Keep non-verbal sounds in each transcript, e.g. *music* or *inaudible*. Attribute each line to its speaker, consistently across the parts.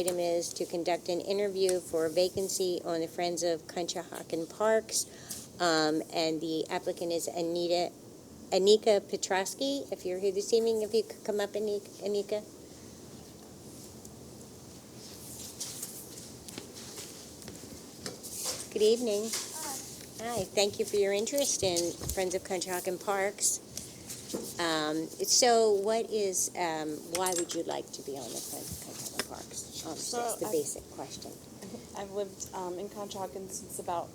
Speaker 1: Item is to conduct an interview for a vacancy on the Friends of Conshohocken Parks. Um, And the applicant is Anita, Anika Petrowski. If you're here this evening, if you could come up, Ani- Anika. Good evening. Hi, thank you for your interest in Friends of Conshohocken Parks. Um, So what is, um, why would you like to be on the Friends of Conshohocken Parks? Um,
Speaker 2: So
Speaker 1: That's the
Speaker 2: I-
Speaker 1: basic question.
Speaker 2: I've lived um, in Conshohocken since about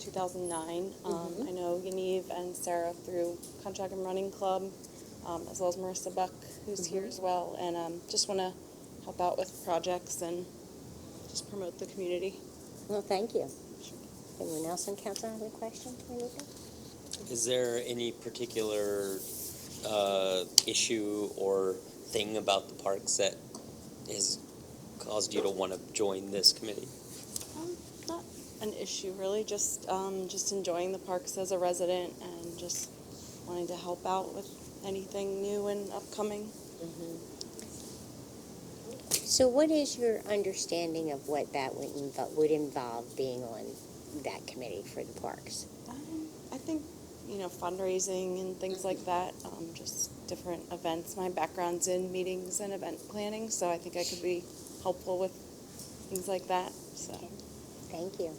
Speaker 2: 2009. Um, I know Yaniv and Sarah through Conshohocken Running Club, um, as well as Marissa Buck, who's here as well, and um, just want to help out with projects and just promote the community.
Speaker 1: Well, thank you. Anyone else on council have a question for Anika?
Speaker 3: Is there any particular uh, issue or thing about the parks that has caused you to want to join this committee?
Speaker 2: Um, not an issue really, just um, just enjoying the parks as a resident and just wanting to help out with anything new and upcoming.
Speaker 1: Mm-hmm. So what is your understanding of what that would involve, would involve being on that committee for the parks?
Speaker 2: Um, I think, you know, fundraising and things like that, um, just different events. My background's in meetings and event planning, so I think I could be helpful with things like that, so.
Speaker 1: Thank you.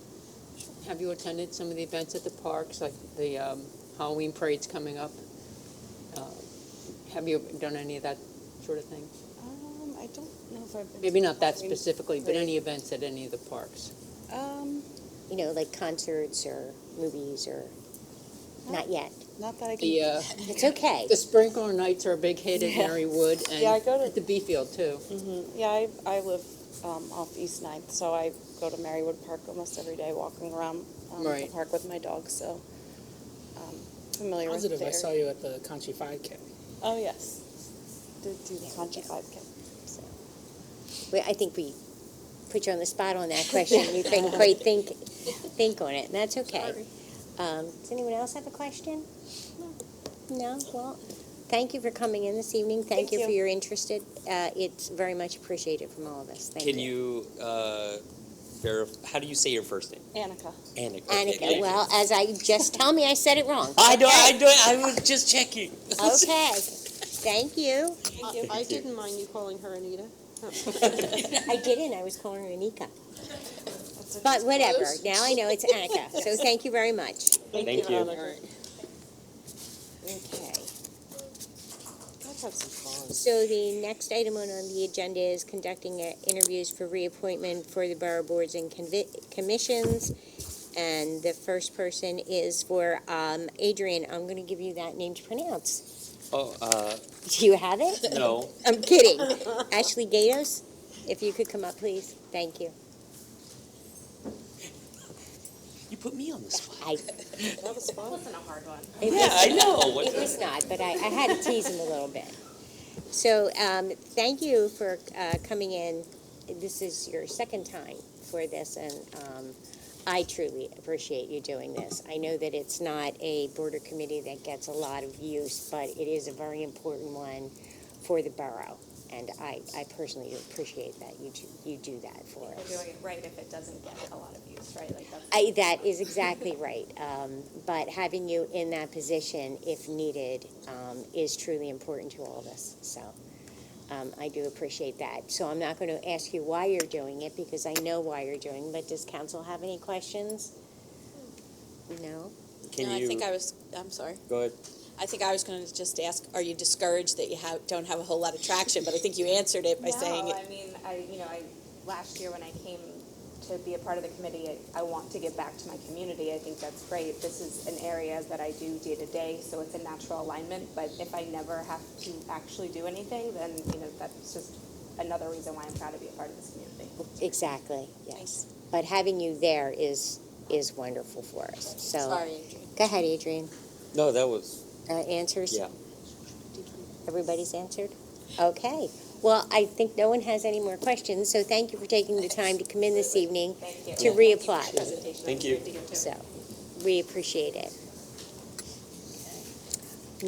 Speaker 4: Have you attended some of the events at the parks, like the um, Halloween parade's coming up? Uh, Have you done any of that sort of thing?
Speaker 2: Um, I don't know if I've been.
Speaker 4: Maybe not that
Speaker 2: Halloween
Speaker 4: specifically, but any
Speaker 2: parade.
Speaker 4: events at any of the parks?
Speaker 2: Um,
Speaker 1: You know, like concerts or movies or, not *laughs* yet.
Speaker 2: not that I can.
Speaker 4: The, uh,
Speaker 2: *laughs*
Speaker 1: It's okay.
Speaker 4: the sprinkler nights are a big hit at
Speaker 2: Yeah.
Speaker 4: Mary Wood and
Speaker 2: Yeah, I go to-
Speaker 4: at the B field too.
Speaker 2: Mhm. Yeah, I, I live, um, off East Ninth, so I go to Marywood Park almost every day, walking around, um, the
Speaker 4: Right.
Speaker 2: park with my dog, so, um, familiar with there.
Speaker 5: Positive, I saw you at the Conchi 5K.
Speaker 2: Oh, yes. Did do the Concha
Speaker 1: go.
Speaker 2: 5K.
Speaker 1: So, we- I think we put you on the spot on that question. You think, quite *laughs* think, think on it, and that's okay. Um, Does anyone else have a question? No? Well, thank you for coming in this evening. Thank
Speaker 2: Thank
Speaker 1: you for
Speaker 2: you.
Speaker 1: your interest. It- uh, It's very much appreciated from all of us. Thank you.
Speaker 3: Can you uh, verify? How do you say your first name?
Speaker 2: Annika.
Speaker 3: Annika. okay, thank
Speaker 1: Annika,
Speaker 3: you.
Speaker 1: well, as I, just tell me I said it
Speaker 3: *laughs*
Speaker 1: wrong.
Speaker 3: I know. I know. I was just checking.
Speaker 1: Okay, thank you.
Speaker 6: I didn't mind you calling her Anita.
Speaker 1: I didn't, I was calling her Anika. But whatever, now I know it's Annika, so thank you very much.
Speaker 3: Thank you.
Speaker 1: Okay.
Speaker 6: Let's have some fun.
Speaker 1: So the next item on on the agenda is conducting uh, interviews for reappointment for the borough boards and convi- commissions. And the first person is for um, Adrian. I'm going to give you that name to pronounce.
Speaker 3: *laughs*
Speaker 1: *laughs*
Speaker 3: Oh uh,
Speaker 1: Do you have it?
Speaker 3: no.
Speaker 1: I'm kidding. Ashley Gatos, if you could come up, please. Thank you.
Speaker 3: You put me on the spot.
Speaker 1: I,
Speaker 6: That was fun.
Speaker 1: it
Speaker 3: Yeah,
Speaker 1: was-
Speaker 3: I know. What
Speaker 1: It
Speaker 3: the-
Speaker 1: was not, but I, I had to tease him a little bit. So, um, thank you for, uh, coming in. This is your second time for this, and, um, I truly appreciate you doing this. I know that it's not a border committee that gets a lot of use, but it is a very important one for the borough. And I, I personally appreciate that you, do- you do that for us.
Speaker 7: we're doing it right if it doesn't get a lot of use, right? Like that's.
Speaker 1: I, that is exactly right. Um, but having you in that position, if needed, um, is truly important to all of us. So um, I do appreciate that. So I'm not going to ask you why you're doing it because I know why you're doing. it. But does council have any questions? No.
Speaker 3: Can
Speaker 8: no,
Speaker 3: you
Speaker 8: I think I was. I'm sorry.
Speaker 3: go ahead?
Speaker 8: I think I was going to just ask: Are you discouraged that you have, don't have a whole lot of traction? But I think you answered it by saying
Speaker 7: No, I mean, I, you know, I, last year when I came to be a part of the committee, I, I want to give back to my community. I think that's great. This is an area that I do day to day, so it's a natural alignment. But if I never have to actually do anything, then, you know, that's just another reason why I'm proud to be a part of this community.
Speaker 1: Exactly. Yes. But having you there is is wonderful for us. So
Speaker 8: Sorry, Adrian.
Speaker 1: go ahead, Adrian.
Speaker 3: No, that was
Speaker 1: Uh, answers.
Speaker 3: yeah.
Speaker 1: Everybody's answered? Okay. Well, I think no one has any more questions, so thank you for taking the time to come in this evening
Speaker 7: Thank you.
Speaker 1: to reapply.
Speaker 7: Presentation.
Speaker 3: Thank you.
Speaker 1: So, we appreciate it.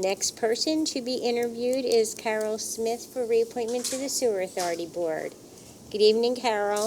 Speaker 1: Next person to be interviewed is Carol Smith for reappointment to the Sewer Authority Board. Good evening, Carol.